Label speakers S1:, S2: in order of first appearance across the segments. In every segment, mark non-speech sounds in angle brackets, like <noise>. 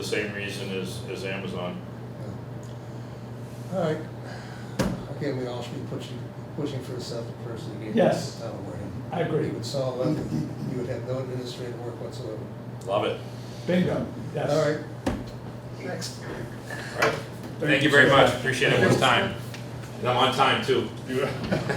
S1: the same reason as, as Amazon.
S2: All right. Again, we all should be pushing, pushing for the self-person to get
S3: Yes.
S2: this town away.
S3: I
S2: You
S3: agree.
S2: would solve that, you would have no administrative work whatsoever.
S1: Love it.
S3: Bingo, yes.
S2: All right. Next.
S1: All right. Thank you very much. Appreciate everyone's time. And I'm on time too. <laughs>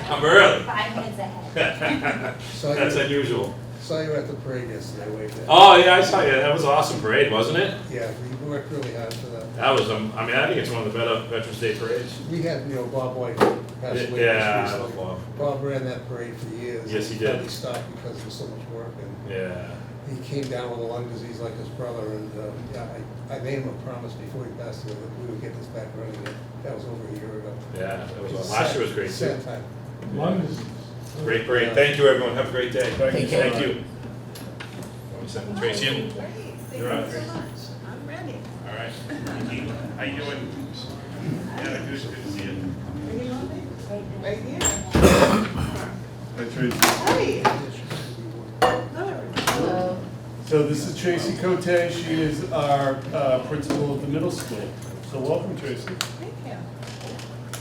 S1: I'm <laughs> early.
S4: Five minutes ahead.
S2: Saw
S1: That's
S2: you,
S1: unusual.
S2: saw you at the parade yesterday, waved at.
S1: Oh, yeah, I saw you. That was an awesome parade, wasn't it?
S2: Yeah, we worked really hard for that.
S1: That was, um, I mean, I think it's one of the better Veterans Day parades.
S2: We had, you know, Bob White pass away.
S1: Yeah, I
S2: just
S1: love
S2: recently.
S1: Bob.
S2: Bob ran that parade for years.
S1: Yes, he did.
S2: But He stopped because there was so much work and
S1: Yeah.
S2: he came down with a lung disease like his brother and, uh, yeah, I, I made him a promise before he passed away that we would get this back running. That was over a year ago.
S1: Yeah, that was, awesome. last year was great too.
S2: Sad time.
S3: Lung disease.
S1: Great parade. Thank you, everyone. Have a great day.
S3: Thank you.
S1: Thank you. Let me send Tracy in.
S4: Great, thank
S1: You're up.
S4: you so much. I'm ready.
S1: All right.
S5: How you doing? Yeah, good, good to see you.
S4: Right here.
S5: Hi Tracy.
S4: Hi. Hello.
S5: So this is Tracy Cote, she is our uh, principal of the middle school. So welcome Tracy.
S4: Thank you.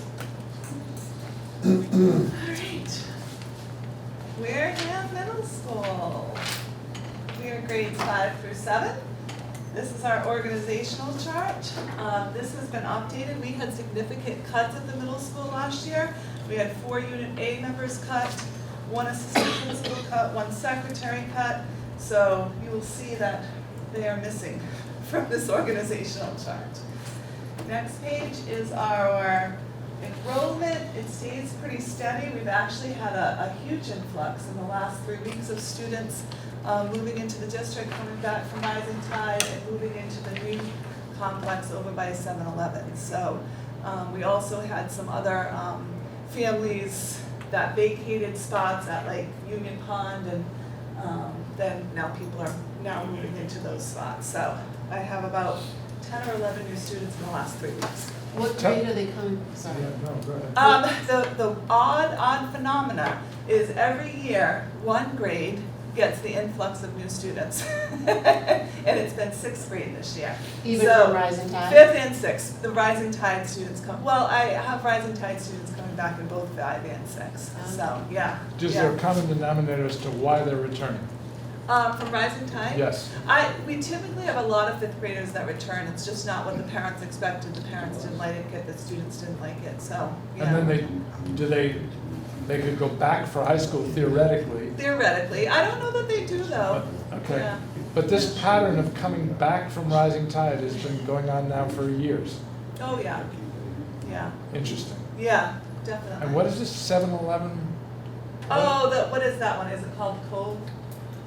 S4: All right.
S6: Wareham Middle School. We are grades five through seven. This is our organizational chart. Um, This has been updated. We had significant cuts at the middle school last year. We had four Unit A members cut, one assistant principal cut, one secretary cut. So you will see that they are missing <laughs> from this organizational chart. Next page is our enrollment. It stays pretty steady. We've actually had a, a huge influx in the last three weeks of students uh, moving into the district, coming back from Rising Tide and moving into the new complex over by 7-Eleven. So um, we also had some other um, families that vacated spots at like Union Pond and um, then now people are now moving into those spots. So I have about ten or eleven new students in the last three weeks.
S7: What grade are they coming, sorry,
S3: Yeah, no, go ahead.
S6: Um, the, the odd, odd phenomena is every year, one grade gets the influx of new students. <laughs> And it's been sixth grade this year.
S7: even
S6: So,
S7: from Rising Tide?
S6: Fifth and sixth, the rising tide students come, well, I have rising tide students coming back in both five and six, so, yeah,
S3: Just
S6: yeah.
S3: a common denominator as to why they're returning.
S6: Um, from rising tide?
S3: Yes.
S6: I, we typically have a lot of fifth graders that return, it's just not what the parents expected, the parents didn't like it, the students didn't like it, so, yeah.
S3: And then they, do they, they could go back for high school theoretically.
S6: Theoretically, I don't know that they do though.
S3: Okay.
S6: Oh, Yeah.
S3: But this pattern of coming back from rising tide has been going on now for years.
S6: Oh, yeah, yeah,
S3: Interesting.
S6: yeah, definitely.
S3: And what is this, 7-Eleven?
S6: Oh, the, what is that one, is it called Cove,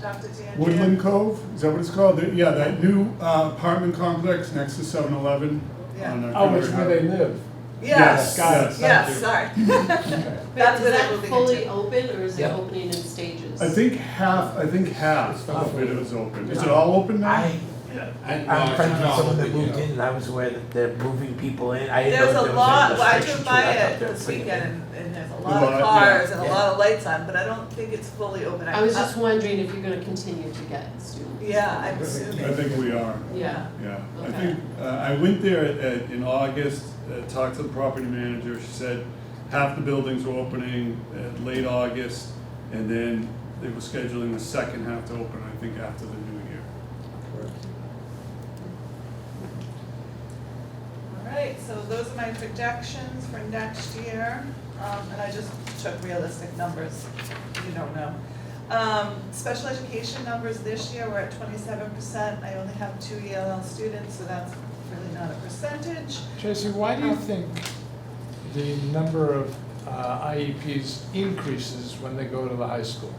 S6: Dr. DeAndrea?
S5: Woodland Cove, is that what it's called? There- Yeah, that new uh, apartment complex next to 7-Eleven.
S6: Yeah.
S5: on, uh,
S3: Oh, it's where
S5: Concord
S3: they
S5: Ave.
S3: live.
S6: Yes,
S3: Got it, thank
S6: yes,
S3: you. <laughs>
S6: sorry.
S3: Okay.
S6: That's what
S7: Is
S6: they're
S7: that
S6: moving
S7: fully
S6: into.
S7: open or is it
S2: Yeah.
S7: opening in stages?
S5: I think half, I think half of it is open. Is it all open now?
S8: I,
S1: No,
S8: I'm
S1: it's
S8: friends with
S1: not
S8: someone that
S1: open
S8: moved
S1: yet.
S8: in, and I was aware that they're moving people in, I didn't know
S6: There's
S8: that
S6: a
S8: there
S6: lot,
S8: was
S6: well,
S8: any
S6: I uh,
S8: restriction
S6: drove
S8: to it.
S6: by
S8: I thought
S6: it
S8: they were
S6: this
S8: putting it in.
S6: weekend and, and there's a
S5: A
S6: lot
S5: lot,
S6: of
S5: yeah.
S6: cars and a
S8: Yeah.
S6: lot of lights on, but I don't think it's fully open.
S7: I was just wondering if you're gonna continue to get students.
S6: Yeah, I'm
S5: I
S6: assuming,
S5: think we are.
S7: Yeah,
S5: Yeah, I
S7: Okay.
S5: think, uh, I went there at- at- in August, uh, talked to the property manager, she said half the buildings were opening uh, late August, and then they were scheduling the second half to open, I think, after the new year.
S6: alright, so those are my projections for next year, um, and I just took realistic numbers, you don't know. Um, special education numbers this year were at twenty-seven percent, I only have two ELL students, so that's really not a percentage.
S3: Tracy, why do you think the number of uh, IEPs increases when they go to the high school?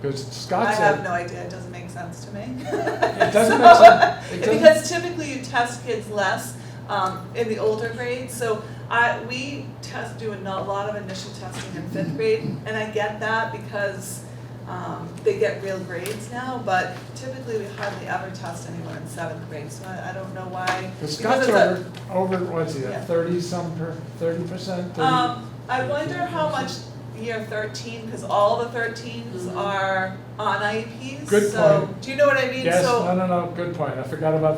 S3: Because
S6: I
S3: Scott
S6: have
S3: said,
S6: no idea, it doesn't make sense to me.
S3: it doesn't
S6: <laughs>
S3: make sense. It doesn't-
S6: Because typically you test kids less um, in the older grades, so I, we test, do a no- lot of initial testing in fifth grade, and I get that because um, they get real grades now, but typically we hardly ever test anyone in seventh grade, so I, I don't know why.
S3: Because
S6: because
S3: Scott's
S6: it's a-
S3: over, over, what's he,
S6: Yeah.
S3: thirty-some per, thirty percent?
S6: Um, I wonder how much year thirteen, because all the thirteens
S7: Mhm.
S6: are on IEPs,
S3: Mm-hmm. Good
S6: so,
S3: point.
S6: do you know what I mean?
S3: Yes,
S6: So-
S3: no, no, no, good point, I forgot about